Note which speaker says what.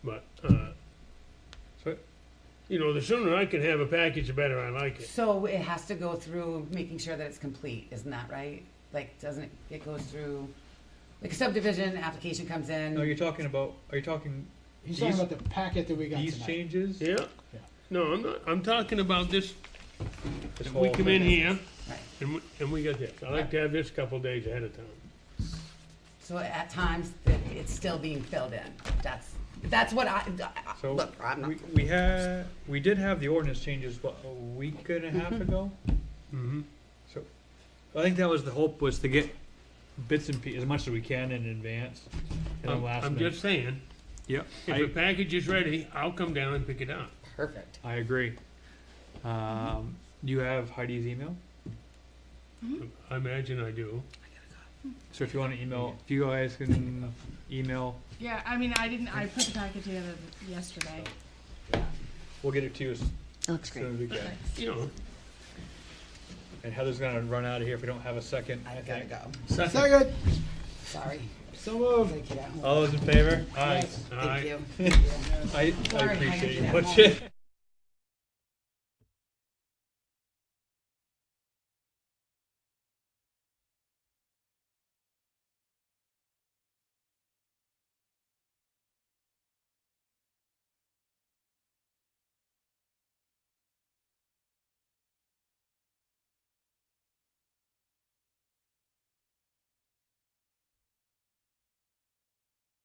Speaker 1: So, uh, you know, the sooner I can have a package, the better I like it.
Speaker 2: So it has to go through making sure that it's complete, isn't that right? Like, doesn't it, it goes through, like subdivision, application comes
Speaker 3: No,
Speaker 2: in,
Speaker 3: you're talking about, are you talking
Speaker 4: He's talking
Speaker 3: These-
Speaker 4: about the packet that we got
Speaker 3: these
Speaker 4: tonight.
Speaker 3: changes?
Speaker 1: Yeah?
Speaker 4: Yeah.
Speaker 1: No, I'm not, I'm talking about this,
Speaker 3: This
Speaker 1: we
Speaker 3: whole
Speaker 1: come in
Speaker 3: thing.
Speaker 1: here
Speaker 2: right?
Speaker 1: and, we- and we got this. I like to have this a couple days ahead of time.
Speaker 2: So at times, it- it's still being filled in. That's, that's what I, I- I-
Speaker 3: So,
Speaker 2: look, I'm not,
Speaker 3: we, we had, we did have the ordinance changes, what, a week and a half ago?
Speaker 1: Mm-hmm.
Speaker 3: So, I think that was the hope, was to get bits and pieces, as much as we can in advance, and then
Speaker 1: I'm,
Speaker 3: last
Speaker 1: I'm
Speaker 3: minute.
Speaker 1: just saying,
Speaker 3: Yep,
Speaker 1: if
Speaker 3: I-
Speaker 1: a package is ready, I'll come down and pick it up.
Speaker 2: perfect.
Speaker 3: I agree. Um, do you have Heidi's email?
Speaker 1: I imagine I do.
Speaker 3: So if you wanna email, if you guys can email,
Speaker 5: Yeah, I mean, I didn't, I put the packet together yesterday.
Speaker 3: we'll get it to you as
Speaker 2: It looks
Speaker 3: soon as we can.
Speaker 1: You know,
Speaker 3: And Heather's gonna run out of here if we don't have a second.
Speaker 2: I gotta go,
Speaker 4: Second,
Speaker 2: sorry.
Speaker 4: so moved.
Speaker 2: Gotta get out.
Speaker 3: All those in favor?
Speaker 1: aye,
Speaker 4: Yes.
Speaker 1: aye.
Speaker 2: Thank you.
Speaker 3: I, I
Speaker 2: Sorry, I had to
Speaker 3: appreciate
Speaker 2: do
Speaker 3: you
Speaker 2: that.
Speaker 3: watching.